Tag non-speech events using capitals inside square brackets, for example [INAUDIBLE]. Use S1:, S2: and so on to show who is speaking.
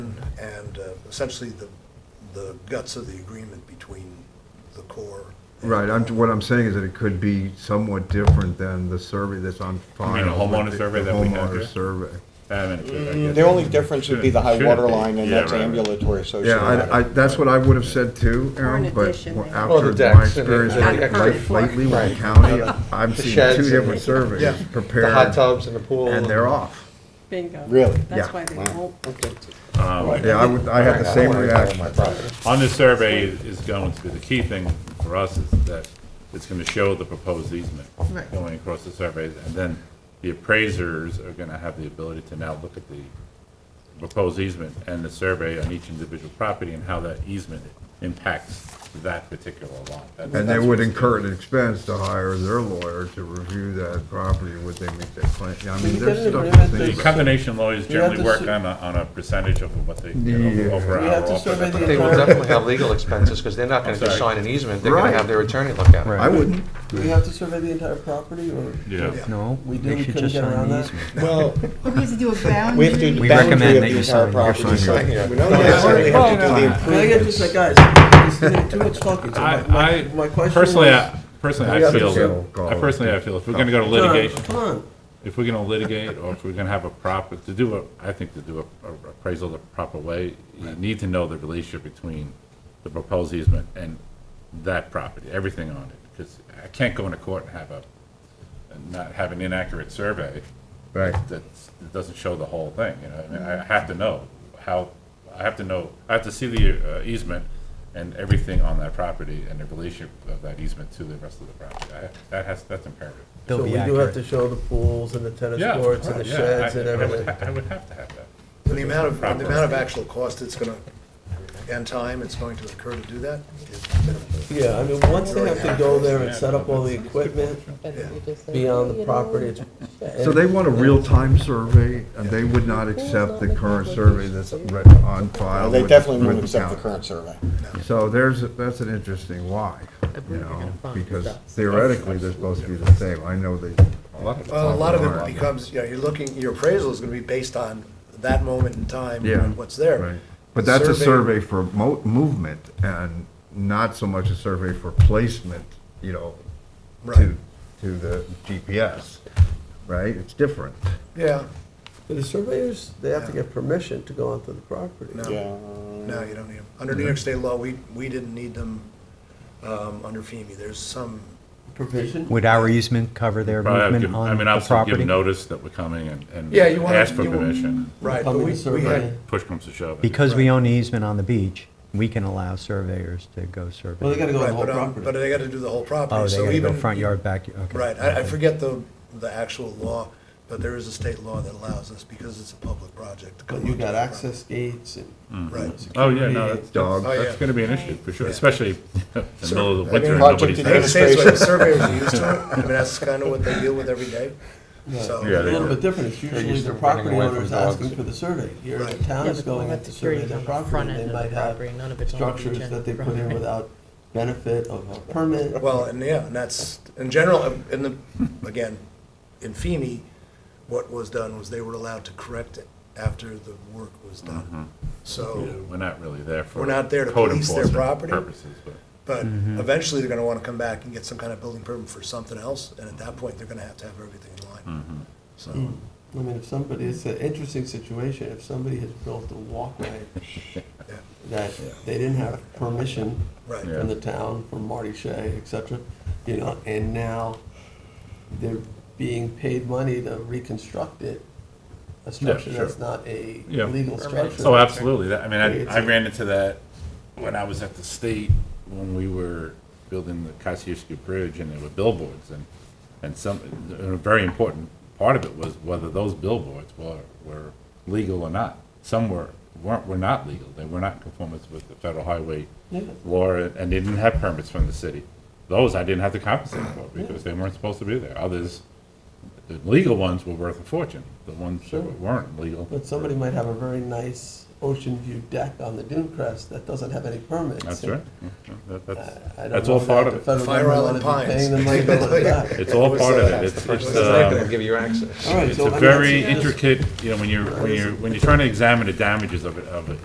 S1: and uh, essentially the, the guts of the agreement between the Corps. and-
S2: Right, I'm, what I'm saying is that it could be somewhat different than the survey that's on file.
S3: mean a homeowner
S2: with the-
S3: survey
S2: the
S3: that we have
S2: homeowner
S3: here?
S2: survey.
S3: I mean, it- I guess
S4: The only
S3: it
S4: difference would be
S3: shouldn't-
S4: the high
S3: shouldn't
S4: water
S3: be.
S4: line, and
S3: Yeah,
S4: that's
S3: right, right.
S4: ambulatory associated.
S2: Yeah, I, I,
S4: with it.
S2: that's what I would have said too,
S5: Or an
S2: Aaron, but
S5: addition,
S2: wha-
S5: maybe.
S6: Well, the
S2: after my
S6: decks and the
S2: experience
S6: extra
S2: like
S5: Not a pergola.
S2: lately with the
S6: Right.
S2: county,
S6: Yeah.
S2: I've
S6: The
S2: seen
S6: sheds
S2: two
S6: and
S2: different
S6: the-
S1: Yeah.
S2: surveys
S1: The hot
S2: prepared.
S6: The hot tubs and the pool.
S2: And they're off.
S5: Bingo.
S4: Really?
S2: Yeah.
S5: That's why they won't.
S6: Okay.
S2: Yeah, I would, I had the same reaction.
S3: On the survey is going to be, the key thing for us is that it's gonna show the proposed easement
S5: Right.
S3: going across the survey, and then the appraisers are gonna have the ability to now look at the proposed easement and the survey on each individual property and how that easement impacts that particular lot. That-
S2: And they
S3: that's
S2: would
S3: what's-
S2: incur an expense to hire their lawyer to review that property, would they make that claim? I mean,
S6: you
S2: there's
S6: get an
S2: stuff to
S6: agreement
S3: The
S2: think
S6: that-
S2: about.
S3: combination lawyers
S6: You have
S3: generally
S6: to
S3: work
S6: su-
S3: on a, on a percentage of what they,
S2: Yeah.
S3: get over
S6: We
S3: our
S6: have to
S3: offer.
S6: survey the
S7: They will
S6: entire-
S7: definitely have legal expenses, because they're not gonna
S3: I'm
S7: just
S3: sorry.
S7: sign an easement, they're gonna
S2: Right.
S7: have their attorney look at it.
S2: I wouldn't,
S4: Do we have to survey the entire property, or?
S3: Yeah,
S8: No,
S4: We did,
S8: they
S4: we
S8: should
S4: couldn't
S8: just
S4: get
S8: sign
S4: around
S8: the
S4: that.
S8: easement.
S6: Well,
S5: We have to do a
S4: We have to
S5: boundary.
S4: do
S8: [LAUGHS]
S4: the
S8: We
S4: boundary
S8: recommend
S4: of the
S8: that you
S4: entire
S8: sign- you're
S4: property.
S8: signing
S4: so-
S8: it.
S6: Yeah.
S1: We know
S4: Don't
S1: you necessarily have to do the
S2: Well,
S4: Can I get
S1: improvements.
S4: just like, guys, it's too much talking, so my-
S3: I,
S4: my,
S3: I,
S4: my question was.
S3: personally, uh, I, personally,
S2: Yeah,
S3: I
S2: I think so.
S3: feel, I personally, I feel if we're gonna go to
S4: Come on,
S3: litigation,
S4: Come on,
S3: if we're gonna litigate, or if we're gonna have a proper, to do a, I think to do a a appraisal the proper way, you need to know the relationship between the proposed easement and that property, everything on it, because I can't go into court and have a, and not have an inaccurate survey
S2: right.
S3: that's, that doesn't show the whole thing, you know, I mean, I have to know how, I have to know, I have to see the uh, easement and everything on that property and the relationship of that easement to the rest of the property, I, that has, that's imperative.
S8: They'll
S6: so we
S8: be
S6: do have
S8: accurate.
S6: to show the pools and the tennis
S3: Yeah,
S6: courts and the
S3: right, yeah,
S6: sheds
S3: I-
S6: and
S3: I would
S6: everything.
S3: ha- I would have to have that.
S1: And the amount of, and the amount of actual cost it's gonna, and time it's going to incur to do that is minimal.
S6: Yeah, I mean, once they have to go there and set up all the equipment beyond the property, it's.
S2: So they want a real-time survey, and they would not accept the current survey that's re- on file.
S4: they
S2: with-
S4: definitely
S2: with
S4: wouldn't accept the
S2: county.
S4: current survey.
S2: So there's, that's an interesting why, you know, because theoretically, they're supposed to be the same. I know they.
S1: Well, a lot of
S2: are.
S1: it becomes, you know, you're looking, your appraisal is gonna be based on that moment in time
S2: Yeah.
S1: and what's there.
S2: Right. But that's a survey for mo- movement and not so much a survey for placement, you know,
S1: Right.
S2: to, to the GPS, right? It's different.
S1: Yeah,
S6: The surveyors, they have to get permission to go onto the property.
S1: No.
S4: Yeah.
S1: no, you don't need them. Under New York state law, we, we didn't need them, um, under FEMA. There's some,
S4: Provision?
S8: Would our easement cover their
S3: Probably have
S8: movement
S3: given- I
S8: on
S3: mean,
S8: the
S3: obviously uh, give
S8: property?
S3: notice that we're coming and, and
S1: Yeah, you wanna-
S3: ask for
S1: you-
S3: permission,
S1: right, but
S4: Upcoming
S1: we, we
S4: survey.
S1: had,
S3: push comes to shove. I guess.
S8: Because we own the easement on the beach, we can allow surveyors to go survey.
S4: Well, they gotta go on
S1: right,
S4: the whole
S1: but, um, but
S4: property.
S1: they gotta do the whole
S8: Oh,
S1: property,
S8: they
S1: so
S8: gotta go
S1: even.
S8: front yard, back, okay.
S1: Right, I, I forget the, the actual law, but there is a state law that allows us, because it's a public project. to
S4: But
S1: come
S4: you
S1: onto
S4: got
S1: the
S4: access gates and.
S1: Right.
S3: Oh, yeah, no, that's,
S2: Dog.
S1: Oh,
S3: that's
S1: yeah.
S3: that's gonna be an issue, for sure, especially [LAUGHS] in the middle of the
S1: I mean,
S3: winter and
S4: project
S3: nobody's
S1: property.
S4: to
S1: I understand,
S3: there.
S4: do.
S1: it's like the surveyors are used to it, I mean, that's kind of what they deal with every day, so.
S3: Yeah,
S4: It's a
S3: they
S4: little
S3: do.
S4: bit different, it's usually
S7: used to
S4: the
S7: running
S4: property
S7: away from
S4: owner's
S7: dogs.
S4: asking for the survey. Here,
S1: Right.
S4: the town
S9: Yeah,
S4: is
S9: but the
S4: going
S9: moment
S4: to
S9: the
S4: survey
S9: security's
S4: their
S9: on the front
S4: property,
S9: end
S4: they
S9: of
S4: might
S9: the
S4: have
S9: property, none of it's on the
S4: structures
S9: beach
S4: that they
S9: end.
S4: put in without benefit of a permit.
S1: Well, and yeah, and that's, in general, um, in the, again, in FEMI, what was done was they were allowed to correct it after the work was done.
S3: Yeah,
S1: So,
S3: We're not really there for.
S1: We're not there to
S3: code
S1: police their
S3: enforcement
S1: property.
S3: Purposes, but.
S1: but eventually, they're gonna want to come back and get some kind of building permit for something else, and at that point, they're gonna have to have everything in
S3: Mm. mm-hmm.
S1: line. So,
S4: I mean, if somebody, it's an interesting situation, if somebody has built a walkway
S1: yeah,
S4: that they didn't have permission
S1: right.
S3: Yeah.
S4: from the town, from Marty Shea, et cetera, you know, and now they're being paid money to reconstruct it, a structure
S3: sure.
S4: that's not a
S3: Yeah.
S4: legal structure.
S3: Oh, absolutely. That- I mean,
S4: It's
S3: I, I
S4: a-
S3: ran into that when I was at the state, when we were building the Kosciuszko Bridge, and there were billboards, and, and some, and a very important part of it was whether those billboards were, were legal or not. Some were, weren't, were not legal, they were not in conformance with the federal highway
S4: Yeah.
S3: law, and they didn't have permits from the city. Those I didn't have to compensate for, because they weren't supposed to be there. Others, the legal ones were worth a fortune, the ones
S4: Sure.
S3: that weren't legal.
S4: But somebody might have a very nice ocean view deck on the dune crest that doesn't have any permits.
S3: That's
S4: And
S3: right. Yeah, that-
S4: I-
S3: That's,
S4: I don't
S3: that's
S4: know
S3: all
S4: if
S3: part of
S4: that the
S3: it.
S4: federal
S1: Fire Island
S4: government ought to be
S1: Pines.
S4: Paying them
S1: [LAUGHS]
S4: money to look at that.
S3: It's all part of it. It's,
S7: It's
S3: it's,
S7: not gonna
S3: um,
S7: give you access.
S4: All right,
S3: it's
S4: so, I
S3: a
S4: mean, uh,
S3: very
S4: that's-
S3: intricate, you know, when you're, when you're, when you're trying to examine the damages of it, of it,